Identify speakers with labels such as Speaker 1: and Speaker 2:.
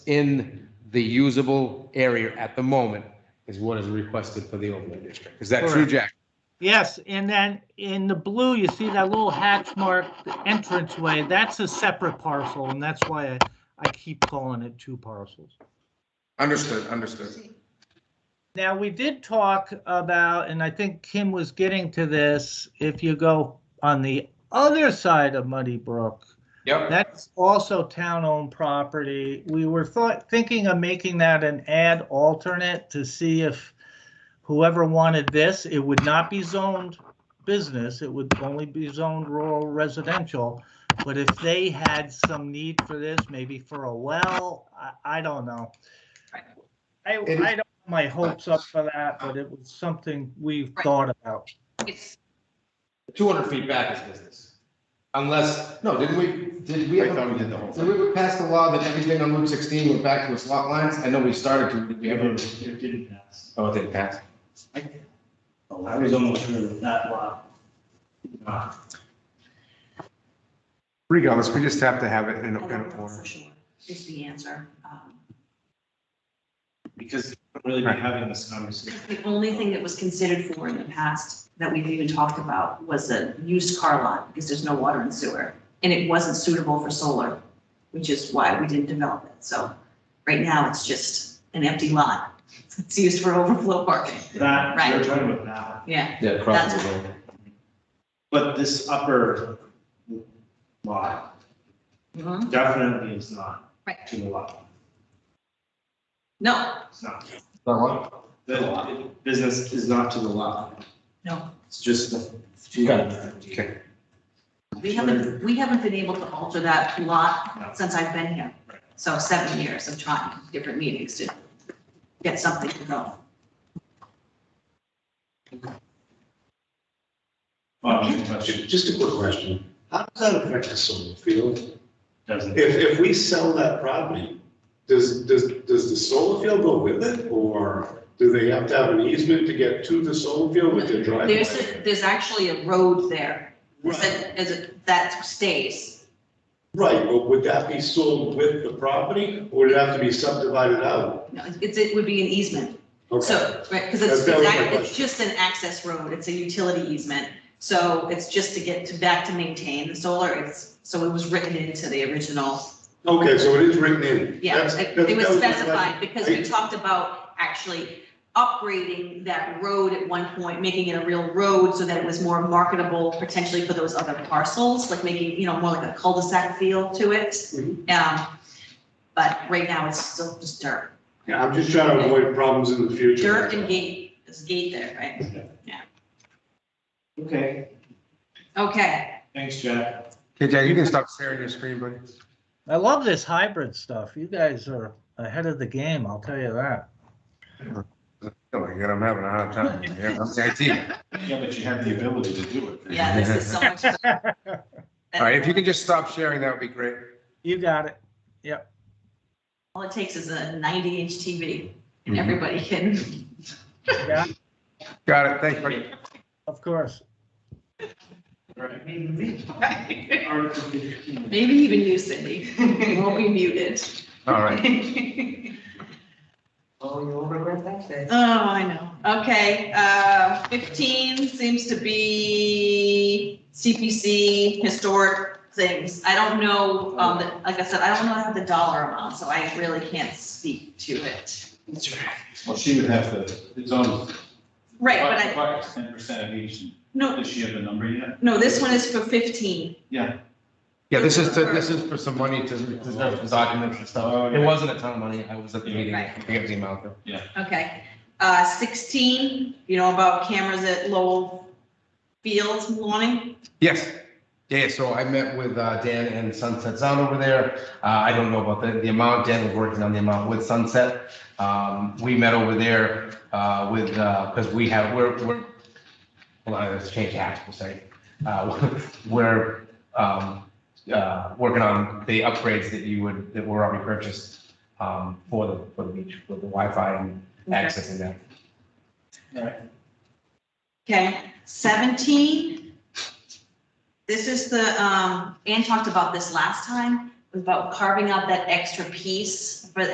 Speaker 1: in the usable area at the moment is what is requested for the overlay district. Is that true,
Speaker 2: Correct.
Speaker 1: Jack?
Speaker 2: Yes, and then in the blue, you see that little hatch mark entranceway, that's a separate parcel, and that's why I, I keep calling it two parcels.
Speaker 3: Understood, understood.
Speaker 2: Now, we did talk about, and I think Kim was getting to this, if you go on the other side of Muddy Brook,
Speaker 3: Yep.
Speaker 2: that's also town-owned property. We were thought, thinking of making that an ad alternate to see if whoever wanted this, it would not be zoned business, it would only be zoned rural residential. But if they had some need for this, maybe for a well, I, I don't know. I, I
Speaker 3: It
Speaker 2: don't
Speaker 3: is-
Speaker 2: have my hopes up for that, but it was something we've thought about.
Speaker 4: It's,
Speaker 1: Two hundred feet back is business. Unless, no, didn't we, did we?
Speaker 3: I thought we did the whole
Speaker 1: Did we pass the law that everything on Route sixteen went back to its lot lines? I know we started to, did we ever?
Speaker 5: It didn't pass.
Speaker 1: Oh, Mm-hmm. it didn't pass.
Speaker 5: Oh, I was almost sure that that lot. uh,
Speaker 6: Regardless, we just have to have it in
Speaker 4: I
Speaker 6: a, in
Speaker 4: don't
Speaker 6: a
Speaker 4: know
Speaker 6: form.
Speaker 4: for sure, is the answer. Um,
Speaker 5: Because we'll really be having this conversation.
Speaker 4: The only thing that was considered for in the past that we've even talked about was a used car lot, because there's no water and sewer. And it wasn't suitable for solar, which is why we didn't develop it. So right now, it's just an empty lot. It's used for overflow parking.
Speaker 5: That,
Speaker 4: Right.
Speaker 5: we're talking about that one.
Speaker 4: Yeah,
Speaker 1: Yeah, across the road.
Speaker 5: But this upper lot
Speaker 4: Mhm.
Speaker 5: definitely is not
Speaker 4: Right.
Speaker 5: to the lot.
Speaker 4: no,
Speaker 5: It's not.
Speaker 1: That one?
Speaker 5: The business is not to the lot.
Speaker 4: no.
Speaker 5: It's just the.
Speaker 1: Got Okay.
Speaker 4: We haven't, we haven't been able to alter that
Speaker 5: No.
Speaker 4: lot since I've been here. So seven years of trying, different meetings to get something to go.
Speaker 5: Um, but it
Speaker 7: Just a quick question. How does that affect the solar field?
Speaker 5: doesn't.
Speaker 7: If, if we sell that property, does, does, does the solar field go with it? Or do they have to have an easement to get to the solar field with their driveway?
Speaker 4: There's, a- there's actually a road there, that, is it- that stays.
Speaker 7: Right, but would that be sold with the property or would it have to be subdivided out?
Speaker 4: No, It's, it would be an easement,
Speaker 7: Okay,
Speaker 4: so, right, because it's,
Speaker 7: That's- that was my
Speaker 4: it's ac- it's
Speaker 7: question.
Speaker 4: just an access road, it's a utility easement. So it's just to get to, back to maintain the solar, it's, so it was written into the original,
Speaker 7: okay, so it is written in.
Speaker 4: yeah,
Speaker 7: That's-
Speaker 4: it
Speaker 7: that-
Speaker 4: it was
Speaker 7: that my
Speaker 4: specified, because we
Speaker 7: I-
Speaker 4: talked about actually upgrading that road at one point, making it a real road so that it was more marketable potentially for those other parcels, like making, you know, more like a cul-de-sac feel to it.
Speaker 7: question.
Speaker 4: Um, but right now it's still just dirt.
Speaker 7: Yeah, I'm just trying to avoid problems in the future.
Speaker 4: Dirt and gate, there's a gate there, right? Yeah.
Speaker 5: Okay,
Speaker 4: Okay,
Speaker 5: thanks, Jack.
Speaker 6: Okay, Jack, you can stop sharing your screen, buddy.
Speaker 2: I love this hybrid stuff. You guys are ahead of the game, I'll tell you that.
Speaker 6: Oh my God, I'm having a hard time. Yeah, I'm the IT.
Speaker 5: Yeah, but you have the ability to do it.
Speaker 4: yeah, this is so much.
Speaker 6: All right, if you can just stop sharing, that would be great.
Speaker 2: You got it.
Speaker 4: All it takes is a ninety inch TV
Speaker 6: Mm-hmm.
Speaker 4: and everybody can.
Speaker 2: You got it.
Speaker 6: Got it, thanks, buddy.
Speaker 2: Of course.
Speaker 5: Right.
Speaker 4: Maybe
Speaker 5: Article fifteen.
Speaker 4: even you, Cindy. You won't be muted.
Speaker 6: All right.
Speaker 8: Oh, you'll regret that day.
Speaker 4: Oh, I know. Okay, uh, fifteen seems to be CPC, historic things. I don't know, um, the- like I said, I don't know how the dollar amount, so I really can't speak to it.
Speaker 9: Well, she would have to, it's almost.
Speaker 4: Right, but I,
Speaker 9: Ten percent of each,
Speaker 4: no,
Speaker 9: does she have a number yet?
Speaker 4: no, this one is for fifteen.
Speaker 1: Yeah, this is, to- this is for some money to, to documents and stuff. It wasn't a ton of money. I was at the meeting. I forget the amount. though.
Speaker 4: Okay, uh, sixteen, you know, about cameras at Lowell Fields morning.
Speaker 1: Yes. Yeah, so I met with uh, Dan and Sunset Sound over there. Uh, I don't know about the, the amount. Dan was working on the amount with Sunset. Um, we met over there, uh, with, uh, because we have, we're, we're, hold on, let's change hats for a second. Uh, we're, um, uh, working on the upgrades that you would, that were already purchased, um, for the, for the beach, for the Wi-Fi and accessing that.
Speaker 4: Okay, seventeen. This is the, um, Ann talked about this last time, about carving out that extra piece for